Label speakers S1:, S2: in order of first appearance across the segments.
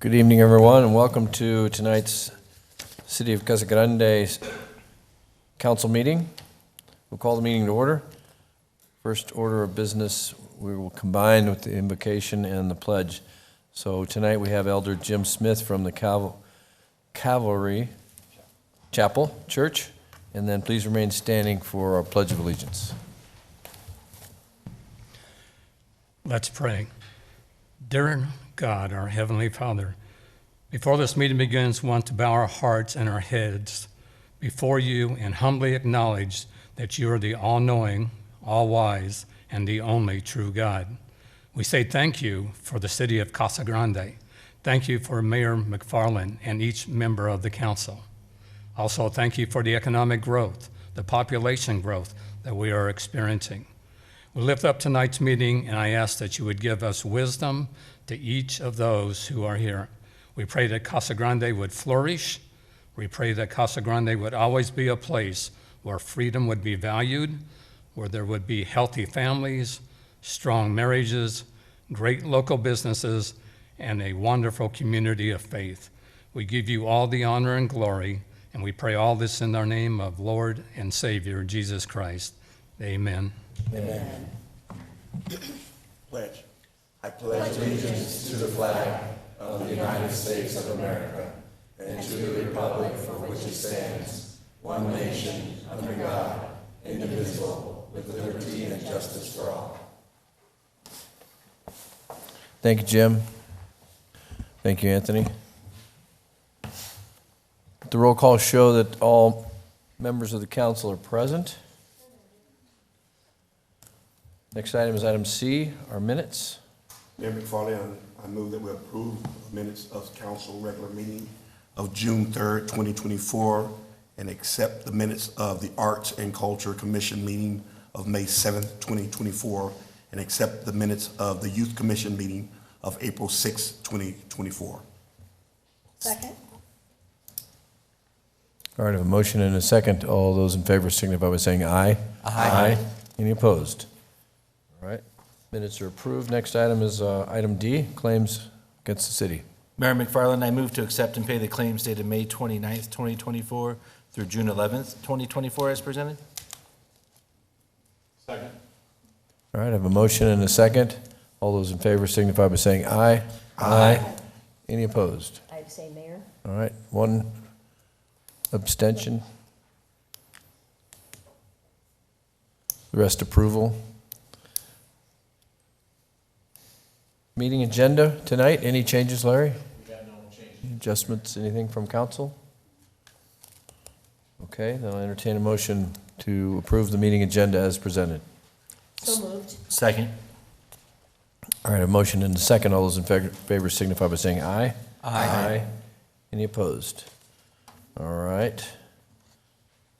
S1: Good evening, everyone, and welcome to tonight's City of Casa Grande Council meeting. We'll call the meeting to order. First order of business, we will combine with the invocation and the pledge. So tonight, we have Elder Jim Smith from the Cav- Cavalry Chapel Church, and then please remain standing for our Pledge of Allegiance.
S2: Let's pray. Dear God, our Heavenly Father, before this meeting begins, we want to bow our hearts and our heads before you and humbly acknowledge that you are the all knowing, all wise, and the only true God. We say thank you for the city of Casa Grande. Thank you for Mayor McFarland and each member of the council. Also, thank you for the economic growth, the population growth that we are experiencing. We lift up tonight's meeting, and I ask that you would give us wisdom to each of those who are here. We pray that Casa Grande would flourish. We pray that Casa Grande would always be a place where freedom would be valued, where there would be healthy families, strong marriages, great local businesses, and a wonderful community of faith. We give you all the honor and glory, and we pray all this in the name of Lord and Savior Jesus Christ. Amen.
S3: pledge. I pledge
S1: Thank you, Jim. Thank you, Anthony. The roll call show that all members of the council are present. Next item is item C, our minutes.
S3: Mayor McFarland, I- I move that we approve minutes of council regular meeting of June 3rd, 2024, and accept the minutes of the Arts and Culture Commission meeting of May 7th, 2024, and accept the minutes of the Youth Commission meeting of April 6th, 2024.
S4: Second?
S1: All right, I have a motion and a second. All those in favor signify by saying aye. Aye. Any opposed? All right, minutes are approved. Next item is uh, item D, claims against the city.
S5: Mayor McFarland, I move to accept and pay the claims dated May 29th, 2024 through June 11th, 2024 as presented.
S1: All right, I have a motion and a second. All those in favor signify by saying aye. Aye. Any opposed?
S4: I abstain, Mayor.
S1: All right, one abstention. The rest approval. Meeting agenda tonight, any changes, Larry? We got no changes. Adjustments, anything from council? Okay, then I'll entertain a motion to approve the meeting agenda as presented.
S4: So moved.
S5: Second.
S1: All right, a motion and a second. All those in fa- favor signify by saying aye. Aye. Any opposed? All right.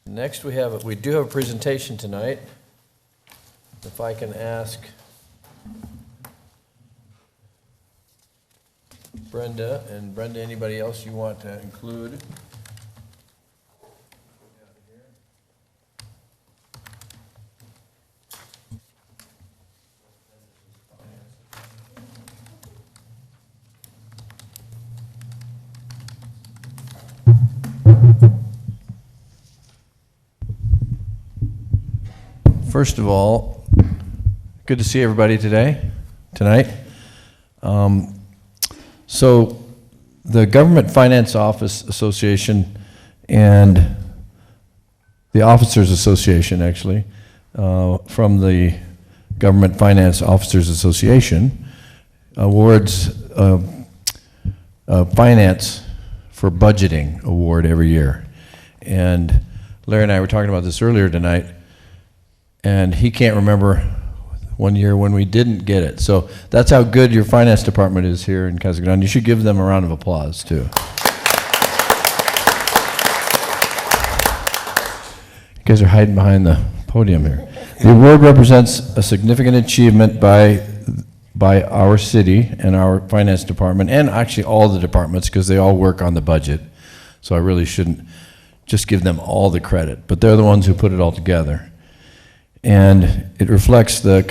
S1: Next, we have, we do have a presentation tonight. If I can ask Brenda, and Brenda, anybody else you want to include? First of all, good to see everybody today, tonight. Um, So, the Government Finance Office Association and the Officers Association, actually, uh, from the Government Finance Officers Association, awards uh, uh, Finance for Budgeting Award every year. And Larry and I were talking about this earlier tonight and he can't remember one year when we didn't get it. So that's how good your finance department is here in Casa Grande. You should give them a round of applause, too. You guys are hiding behind the podium here. The award represents a significant achievement by, by our city and our finance department, and actually all the departments, because they all work on the budget. So I really shouldn't just give them all the credit, but they're the ones who put it all together and it reflects the